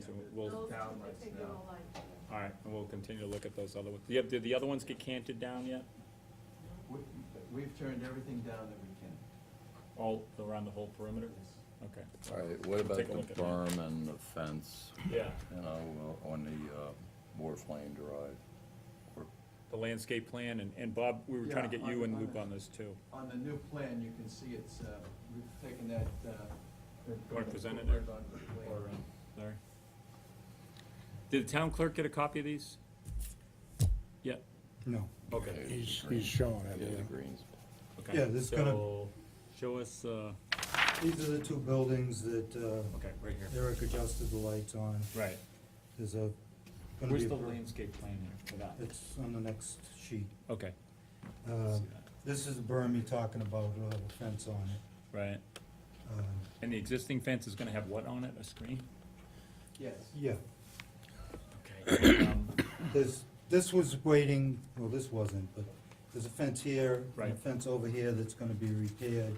so we'll, all Those two down lights particular now. lights. right, and we'll continue to look at those other ones. Yeah, did the other ones get canted down yet? We- We've turned everything down that we can. All around the whole perimeter? Okay. All right, what about Take a look the at that. berm and the fence, Yeah, you know, on the uh, Wharf Lane Drive? Or- the landscape plan, and, and Bob, we were trying to Yeah, get you on- in on loop the- on this too. On the new plan, you can see it's, uh, we've taken that. uh, wanna present it, word Eric? onto the plan. Or, um, Larry? Did the town clerk get a copy of these? Yeah, No, okay, Yeah, the he's, green- he's showing it, Yeah, the yeah. greens. okay. Yeah, this is gonna- So, Show us, uh, These are the two buildings that uh, okay, right here. Eric adjusted the lights on. Right. There's a. gonna be Where's a the per- landscape plan here for that? It's on the next sheet. Okay, Uh, This is the berm you're talking about, it'll have a fence on it. right. Uh, And the existing fence is gonna have what on it, a screen? Yes. Yeah, Okay. um, there's, this was waiting, well, this wasn't, but there's a fence here, and a Right. fence over here that's gonna be repaired.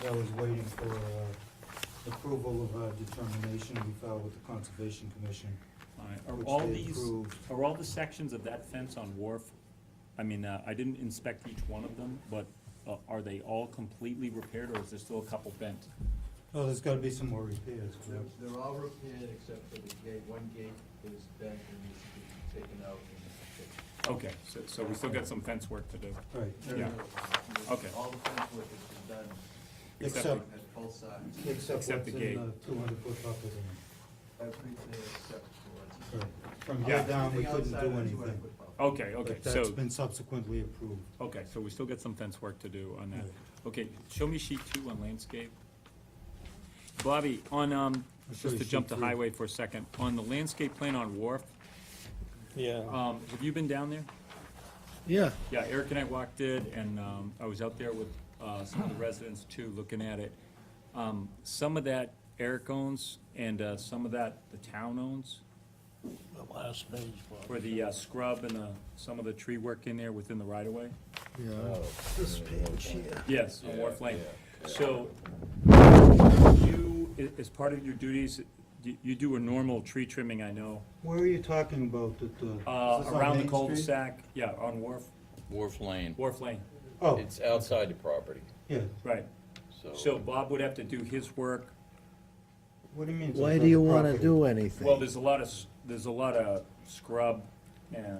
That was waiting for uh, approval of our determination we filed with the Conservation Commission. all right, Are Which all they these, approved. are all the sections of that fence on Wharf, I mean, uh, I didn't inspect each one of them, but uh, are they all completely repaired, or is there still a couple bent? Oh, there's gotta be some more repairs, They're, correct? they're all repaired except for the gate. One gate is bent and needs to be taken out and fixed. Okay, so, so we still got some fence work to do. Right, Yeah. Okay. All the fence work has been done. Except Except- on both sides. except what's Except the gate. in the two hundred foot buffer zone. Everything except for. Right. From Yeah. here down, we Everything couldn't outside of do the 200 anything. foot buffer. Okay, okay, But that's so, been subsequently approved. okay, so we still got some fence work to do on that. Right. Okay, show me sheet two on landscape. Bobby, on, um, I'll show just you to jump sheet to three. highway for a second, on the landscape plan on Wharf, Yeah. um, have you been down there? Yeah. Yeah, Eric and I walked it, and um, I was out there with uh, some of the residents too, looking at it. Um, Some of that Eric owns, and uh, some of that the town owns, The last page, Bob. where the uh, scrub and the, some of the tree work in there within the right-of-way. Yeah. Oh, This yeah, the page Wharf Lane. here. Yes, on Yeah, Wharf Lane. yeah. So, you, a- as part of your duties, you- you do a normal tree trimming, I know, Where are you talking about that, uh? uh, is this on around the Main Street? cul-de-sac, yeah, on Wharf, Wharf Lane, Wharf Lane, Oh, it's outside the property, yeah, right. So so, Bob would have to do his work, what do you mean? it's Why on do you private wanna property? do anything? Well, there's a lot of, s- there's a lot of scrub and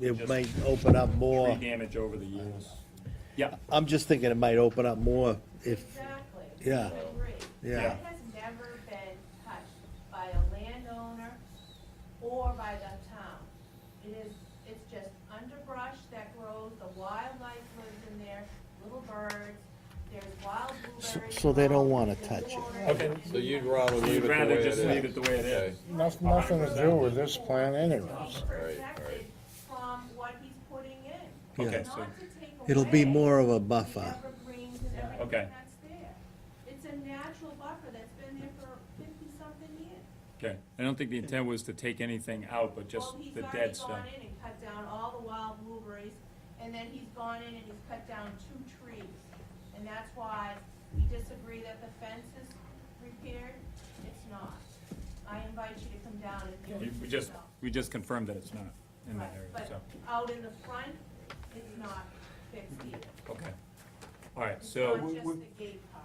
It might open up tree more. damage over the years. Yeah, I'm just thinking it might open up more if, Exactly. Yeah. I agree. Yeah. That has never been touched by a landowner or by the town. It is, it's just underbrush that grows, the wildlife lives in there, little birds, there's wild blueberries. so they don't wanna involved, there's touch it. water. Okay. so you'd rather leave it the way it rather is? just leave it the way it Okay. is. Nothing, nothing to do with this plan anyways. Protected from what he's putting in. Okay, Not so- to take it'll be away more of a the buffer. evergreens and everything Okay. that's there. It's a natural buffer that's been there for fifty-something years. okay. I don't think the intent was to take anything out, but just Well, he's the already dead stuff. gone in and cut down all the wild blueberries, and then he's gone in and he's cut down two trees. And that's why we disagree that the fence is repaired, it's not. I invite you to come down and We view it we just, yourself. we just confirmed that it's not in that Right, area, But so, out in the front, it's not fixed either. okay. All right, It's so, not we- just we- the gate part.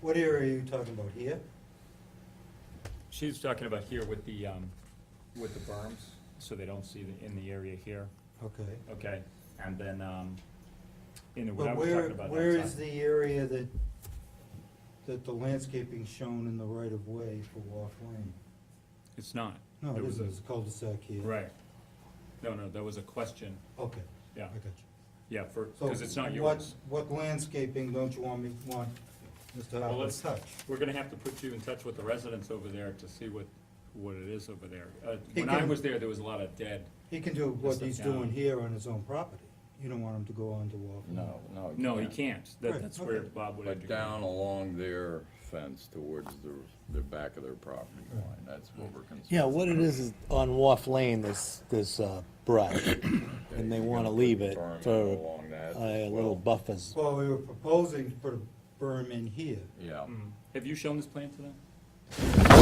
What area are you talking about, here? she's talking about here with the, um, with the berms, so they don't see the, in the area here, Okay. okay? And then, um, in the, what I But was where, talking about outside. where is the area that, that the landscaping shown in the right of way for Wharf Lane? It's not. No, There it was a- isn't, it's a cul-de-sac here. Right. No, no, that was a question, Okay, yeah, I got you. yeah, for, So because it's not what- yours. What landscaping don't you want me, want Mr. Well, Harper let's- to touch? We're gonna have to put you in touch with the residents over there to see what, what it is over there. Uh, He When I can- was there, there was a lot of dead, He can do what Just he's look down. doing here on his own property. You don't want him to go on to Wharf Lane. No, no. no, he can't, that, Right, that's where okay. Bob would have to But go. down along their fence towards the, the back of their property line, that's what we're concerned. Yeah, what it is, is on Wharf Lane, there's, there's uh, brush, Okay, and they you're gonna wanna put leave the it berm for along that a as little well. buffers. Well, we were proposing to put a berm in here. Yeah, Have you shown this plan to them?